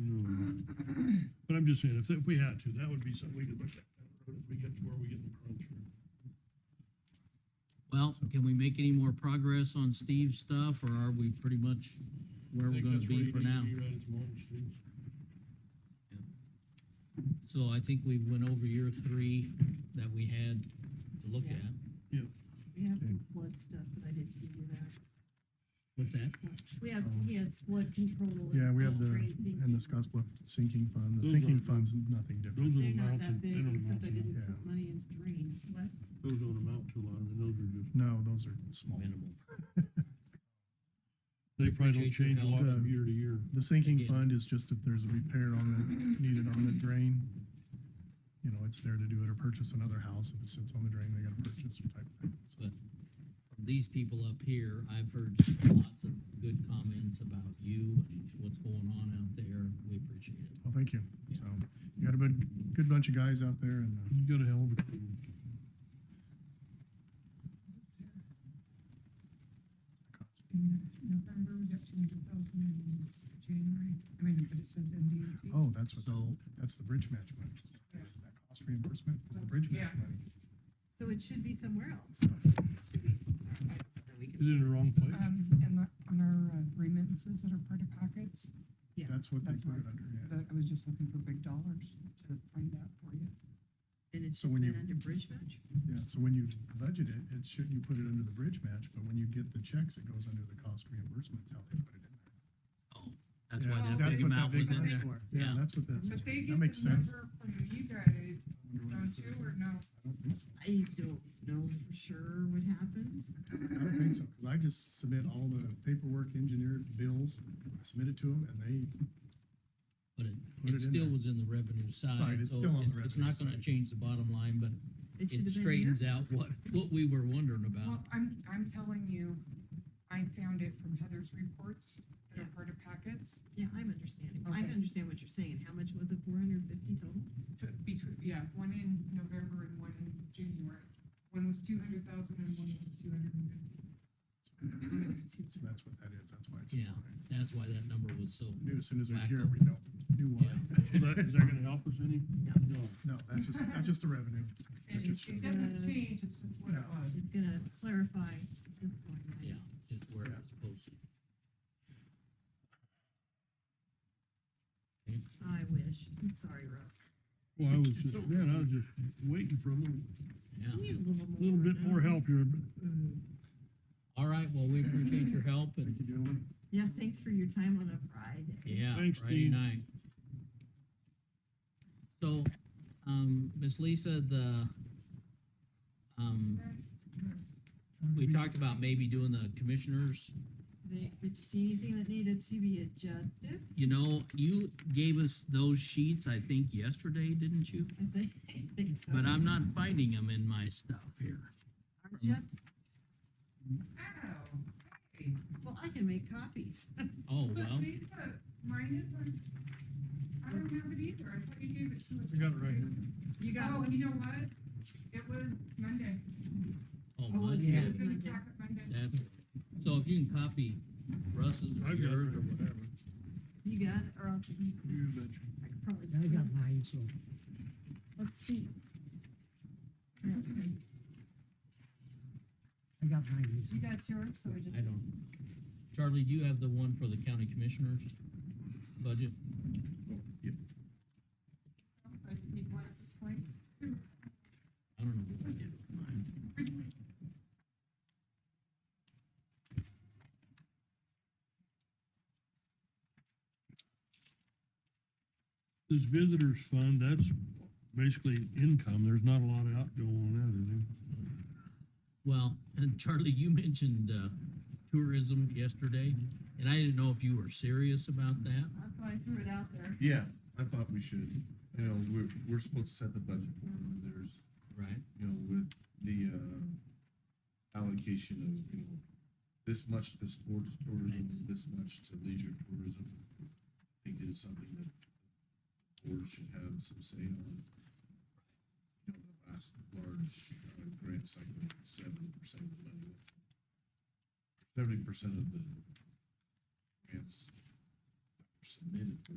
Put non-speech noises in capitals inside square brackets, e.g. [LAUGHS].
Mm. But I'm just saying, if, if we had to, that would be something we could look at, that road as we get to where we get in the crunch. Well, can we make any more progress on Steve's stuff, or are we pretty much where I we're think gonna that's where be you for need to now? be right at the moment, Steve. So I think we went over year three that we had to look Yeah. at. We have some flood stuff, but I didn't give you that. What's that? We have, he has flood control. Oh. Yeah, we have and the, grazing. and the Scotts Bluff sinking Mm-hmm. fund, the Those sinking are- fund's nothing different. Those don't They're not amount to, that they big, don't amount except I to, didn't yeah. put money into drain. What? those don't amount to a lot, and those are just, No, those are small. Minimal. they probably don't Appreciate your change a lot help. from year to year. The sinking Yeah. fund is just if there's a repair on the, needed on the drain, you know, it's there to do it, or purchase another house, if it sits on the drain, they gotta purchase type of thing. So, But from these people up here, I've heard lots of good comments about you and what's going on out there. We appreciate it. Well, thank you. So, you got a good, good bunch of guys out there and, uh, You got a hell of a crew. November, we got two hundred thousand in January, I mean, but it says MDOT. oh, that's what, So- that's the bridge match money. That cost reimbursement is the bridge match Yeah. money. So it should be somewhere else. Should be. All right, then we Is can- it in the wrong place? Um, and the- on our uh, remittances that are part of packets, Yeah. That's what they That's put it right. under, yeah. that, I was just looking for big dollars to find out for you. And it's So when been you- under bridge match? Yeah, so when you budget it, it should, you put it under the bridge match, but when you get the checks, it goes under the cost reimbursements, how they put it in there. Oh, that's Yeah, why Oh, that that's big what amount big was in amount there. is for. Yeah, Yeah. that's what that's. But they That get makes the sense. number from you guys, I wonder why don't they put you, it or in. no? I don't think so. I don't know for sure what happened. I don't think so, because I just submit all the paperwork, engineered bills, submit it to them, and they, But Put it, it it in still there. was in the revenue Right, side, it's so still on the it- it's revenue not gonna side. change the bottom line, but It should it have been here. straightens out what, what we were wondering about. Well, I'm, I'm telling you, I found it from Heather's reports that are part of packets, Yeah, I'm understanding. I Okay. understand what you're saying. How much was it? Four hundred and fifty total? But between, yeah, one in November and one in January. One was two hundred thousand and one was two hundred and fifty. Mm-hmm. so that's what that is, that's why it's. Yeah, that's why that number was so, Knew as soon as we hear it, Wacko. we know, knew why. [LAUGHS] Is that, is that gonna help us any? No. No, that's just, that's just the revenue. And it it doesn't change, it's just what it was. It's gonna clarify this one. right? yeah, just where it Yeah. was posted. I wish. I'm sorry, Russ. Well, I was It's just, over. man, I was just waiting for a little, We Yeah. need a little more. little bit more no? help here, but All right, well, we appreciate your help Thank and, you, gentlemen. Yeah, thanks for your time on a Friday. yeah, Thanks, Friday Dean. night. So, um, Miss Lisa, the, um, we talked about maybe doing the commissioners. Did did you see anything that needed to be adjusted? You know, you gave us those sheets, I think yesterday, didn't you? I think, [LAUGHS] I think so. But I'm not finding them in my stuff here. Aren't ya? Ow, oh, hey, Well, I can make copies. [LAUGHS] Oh, well, but they put mine is on, I don't have it either, I thought you gave it to us. I got it right here. You got Oh, one? you know what? It was Monday. oh, Oh, Monday. yeah. It was in Monday. the packet Monday. That's, so if you can copy Russ's or I've got it right yours or over whatever. there. You got it, or I'll, I You betcha. could probably. I got mine, so Let's see. I got mine. You got yours, so we just. I don't. Charlie, do you have the one for the county commissioners budget? I just need one at this point. I don't know what I did with mine. This visitors fund, that's basically income, there's not a lot of outgo on that, is there? Well, [LAUGHS] and Charlie, you mentioned, uh, tourism yesterday, and I didn't know if you were serious about that. That's why I threw it out there. Yeah, I thought we should, you know, we're, we're supposed to set the budget for them, and there's, Right. you know, with the, uh, allocation of, you know, this much to sports tourism, this much to leisure tourism. I think is something that the board should have some say on. You know, the last large, uh, grant cycle, seventy percent of the money went. Seventy percent of the grants that were submitted were